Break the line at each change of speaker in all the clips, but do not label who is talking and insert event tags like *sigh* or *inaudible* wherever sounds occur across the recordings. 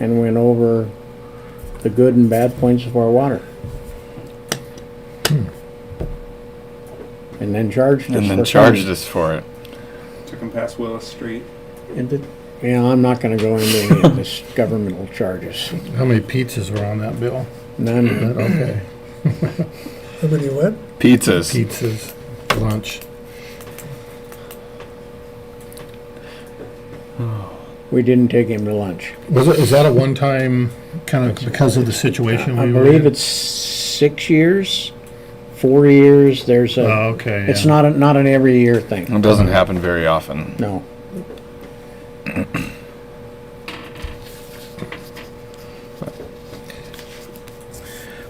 and went over the good and bad points of our water. And then charged us
and then
for
charged
funding.
us for it.
Took him past Willis Street.
And it- You know, I'm not gonna go into any of this *laughs* governmental charges,
How many pizzas were on
*clears throat*
that bill?
none.
Okay,
How many what?
Pizzas.
pizzas, lunch.
We didn't take him to lunch.
Was it, is that a one-time, kind of because of the situation
I
we were
believe
in?
it's six years, four years, there's
Oh,
a,
okay.
uh, it's
yeah.
not, a- not an every year thing,
It doesn't happen very often.
no.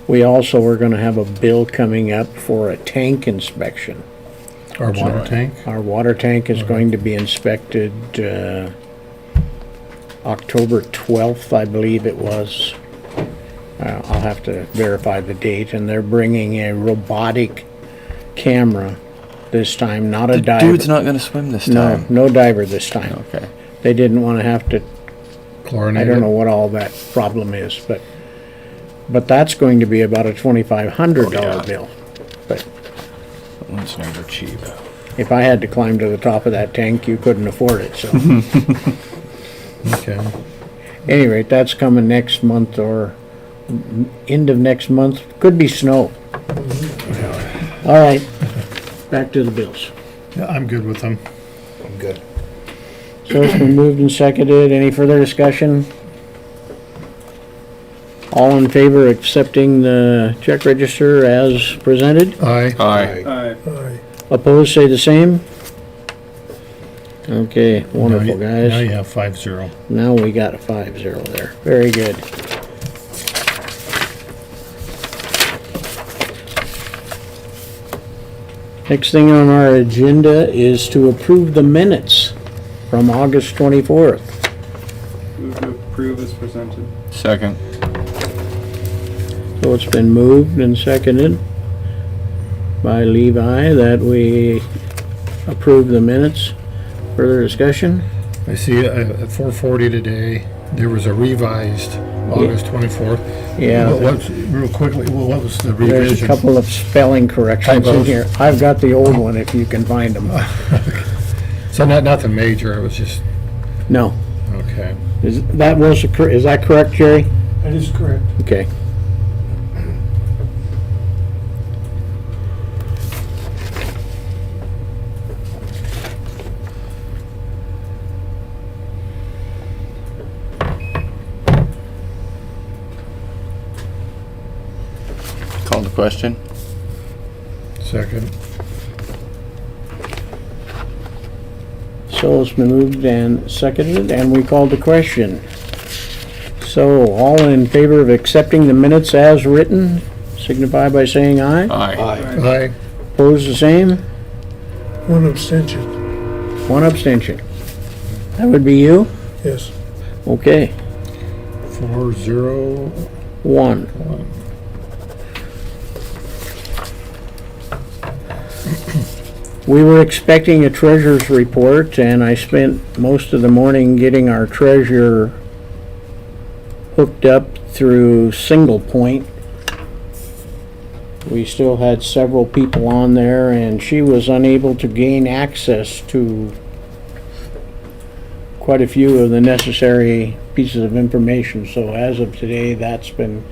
We also were gonna have a bill coming up for a tank inspection.
Our water tank?
Our water tank is going to be inspected, uh, October 12th, I believe it was. Uh, I'll have to verify the date, and they're bringing a robotic camera this time, not a diver.
not going to swim this
No, no diver this time.
Okay.
They didn't want to have to I
Chlorinated?
don't know what all that problem is, but, but that's going to be about a
Oh, yeah.
$2,500 bill. But
It's never cheap.
if I had to climb to the top of that tank, you couldn't afford it, so. *laughs*
Okay.
any rate, that's coming next month or m- end of next month. Could be snow. All right, back to the bills.
Yeah, I'm good with them.
I'm good.
So it's been moved and seconded. Any further discussion? All in favor of accepting the check register as presented?
Aye.
Aye.
I
Aye.
Opposed, say the same? Okay, wonderful,
Now you- Now you
guys.
have five zero.
Now we got a five zero there. Very good. Next thing on our agenda is to approve the minutes from August twenty-fourth.
move to approve as presented.
Second.
So it's been moved and seconded by Levi that we approve the minutes. Further discussion?
I see uh, at four forty today, there was a revised August twenty-fourth.
Yeah.
What was, real quickly, what was the
There's a
revision?
couple of spelling corrections in
Typos.
here. I've got the old one if you can find them.
So not, nothing major, it was just,
No.
okay.
Is, that was, the cor- is that correct, Jerry?
That is correct.
Okay.
Call the question.
Second.
So it's been moved and seconded, and we called the question. So, all in favor of accepting the minutes as written, signify by saying aye.
Aye.
Aye.
Aye.
Opposed, the same.
One abstention,
One abstention. That would be you?
yes.
Okay,
Four zero
one.
one.
We were expecting a treasurer's report, and I spent most of the morning getting our treasurer hooked up through Single Point. We still had several people on there, and she was unable to gain access to quite a few of the necessary pieces of information. So as of today, that's been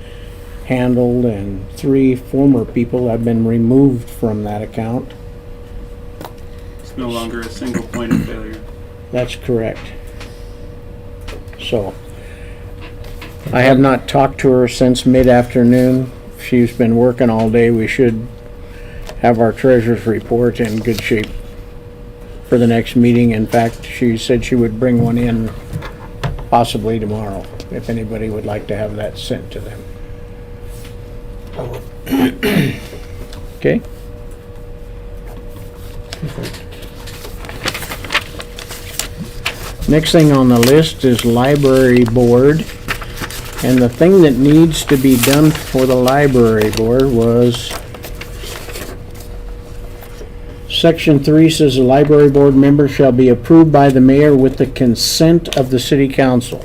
handled, and three former people have been removed from that account.
It's no longer a single point of failure.
That's correct. So, I have not talked to her since mid-afternoon. She's been working all day. We should have our treasurer's report in good shape for the next meeting. In fact, she said she would bring one in possibly tomorrow, if anybody would like to have that sent to them. Okay? Next thing on the list is library board. And the thing that needs to be done for the library board was section three says the library board member shall be approved by the mayor with the consent of the city council.